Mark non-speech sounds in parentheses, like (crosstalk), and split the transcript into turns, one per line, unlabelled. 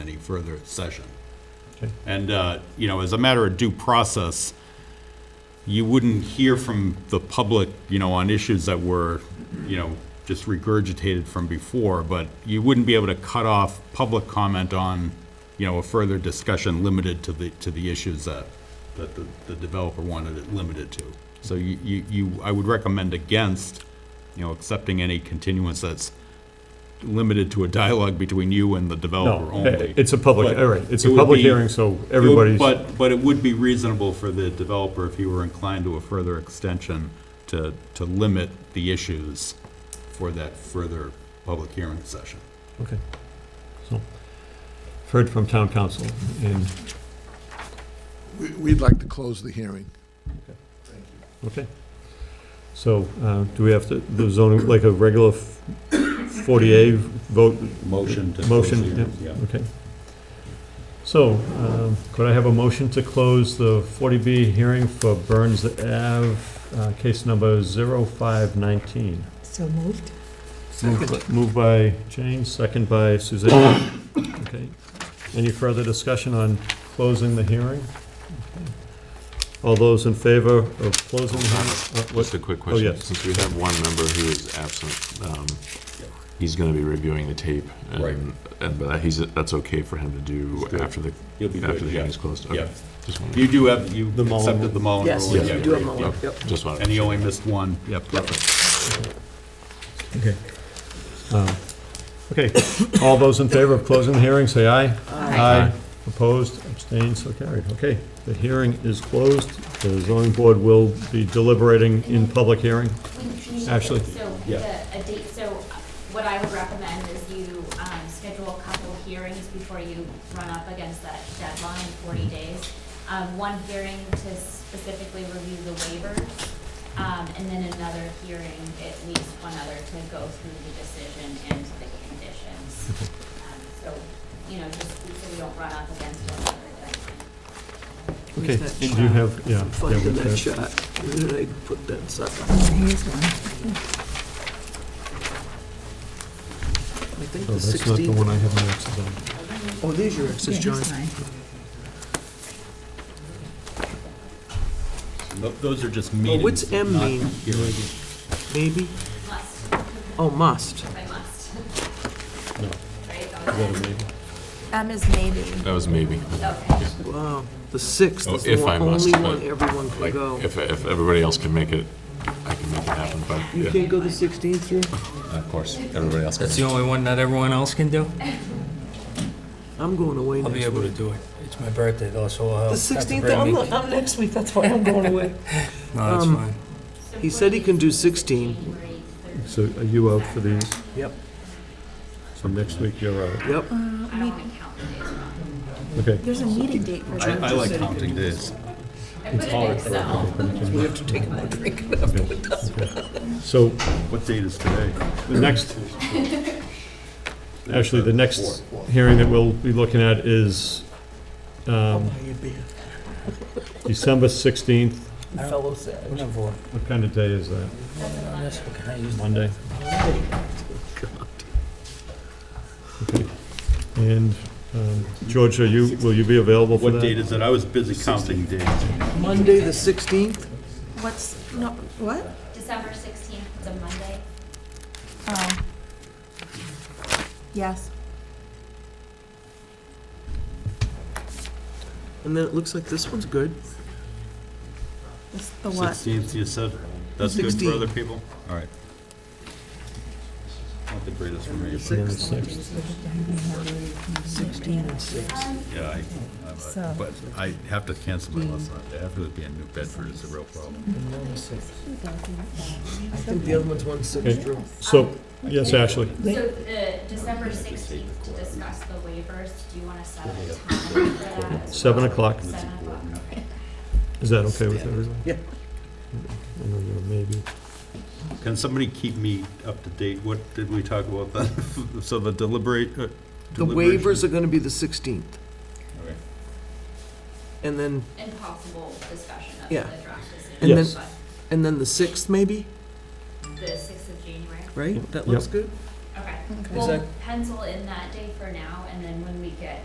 any further session.
Okay.
And, uh, you know, as a matter of due process, you wouldn't hear from the public, you know, on issues that were, you know, just regurgitated from before, but you wouldn't be able to cut off public comment on, you know, a further discussion limited to the, to the issues that, that the the developer wanted it limited to. So you, you, you, I would recommend against, you know, accepting any continuance that's limited to a dialogue between you and the developer
No,
only.
it- it's a public,
But
all right, it's
it
a
would
public
be-
hearing, so
it would-
everybody's,
But, but it would be reasonable for the developer, if he were inclined to a further extension, to, to limit the issues for that further public hearing session.
okay. So, I've heard from town council, and,
We- We'd like to close the hearing.
okay. So, uh, do we have to, the zoning, like a regular 40A vote,
Motion to. close
Motion,
the hearing, yeah.
okay. So, um, could I have a motion to close the 40B hearing for Burns Ave, uh, case number 0519?
So moved.
Moved by- Moved by Jane, second by Suzanne. Okay. Any further discussion on closing the hearing? Okay. All those in favor of closing the hearing? Uh,
Just
what-
a quick question.
yes.
Since we have one member who is absent, um, he's gonna be reviewing the tape. and-
Right.
And, but he's, that's okay for him to do
Let's do it.
after the,
You'll be
after
good,
the
yeah.
hearing is closed? Okay.
Yeah.
Just
You
wanted, Oh,
do have, you
The Mullen
accepted
rule.
the Mullen rule.
Yes,
yeah,
yes, you do have
great,
Mullen,
yeah.
yep.
just wanted.
And you only missed one, yeah, perfect.
Okay. Um, Okay, all those in favor of closing the hearing, say aye. Aye. Opposed, abstained, so carried. Okay, the hearing is closed. The zoning board will be deliberating in public hearing. Actually,
Actually, so the,
yeah.
a date, so uh, what I would recommend is you, um, schedule a couple hearings before you run up against that deadline, forty days. Um, one hearing to specifically review the waivers, um, and then another hearing, at least one other, to go through the decision and the conditions. Um, So, you know, just so we don't run up against one another deadline.
okay,
Where's that
and you
shot?
have, yeah. yeah,
Finding
we've
that
got-
shot, where did I put that sucker?
Oh, Here's one.
I think
Oh,
the
that's not the
16th.
one I have my X's on.
Oh, there's your X's,
Yeah,
John.
here's mine.
Th- Those are just
Oh,
meetings.
what's M
not
mean?
hearings.
Maybe?
Must,
Oh, must.
I must.
No.
Right, that
Is
was
that a
it.
maybe?
M is maybe.
That was maybe. (laughs)
Okay.
Wow. The 6th
Oh,
is
if
the
I
one-
must,
only
but,
one everyone can
Like,
go.
if, if everybody else can make it, I can make it happen, but,
You
yeah,
can't go the 16th, Drew?
of course, everybody else can.
That's the only one that everyone else can do?
I'm going away
I'll be
next
able to
week.
do it. It's my birthday though, so I'll.
The
have to
16th,
bring
I'm,
me-
not- I'm next week, that's why I'm going away.
No, that's
um,
fine.
He said he can do 16.
So are you out for these?
Yep.
So next week you're out.
Yep.
I don't want to count the days wrong.
Okay,
There's a meeting date for
I,
that.
I like counting days.
I put it in Excel.
We have to take one drink and after we're done.
so
What date is today?
the next, actually, the next hearing that we'll be looking at is
I'll
um,
buy you a beer.
December 16th.
Fellow Sag.
Whatever.
What kind of day is that?
That's what can I use the-
Monday? Okay. And um, George, are you, will you be available for that?
What date is it? I was busy counting days.
Monday, the 16th?
What's, no, what?
December sixteenth, it's a Monday.
Oh. Yes.
And then it looks like this one's good.
It's the what?
Sixteenth, you said? That's good for
16.
other people? All right. Not the greatest for me, but,
On the sixth.
yeah, I, I'm
So-
a- but I have to cancel my lesson on that. After being in New Bedford is a real problem.
I think the other one's one six,
Okay.
Drew.
So, yes, Ashley?
So the December sixteenth to discuss the waivers, do you want to set a time for that? as
Seven
well?
o'clock.
Seven o'clock, okay.
Is that okay with everyone? I
Yeah.
don't know, Maybe.
Can somebody keep me up to date? What did we talk about then? (laughs) So the deliberate, uh,
The waivers are gonna be the 16th,
Okay.
and then,
And possible discussion of
Yeah.
the draft decision.
And
then- Yes.
and then the 6th maybe,
But The sixth of January,
right? That
Yep.
looks good?
okay.
Is
We'll
that-
pencil in that day for now, and then when we get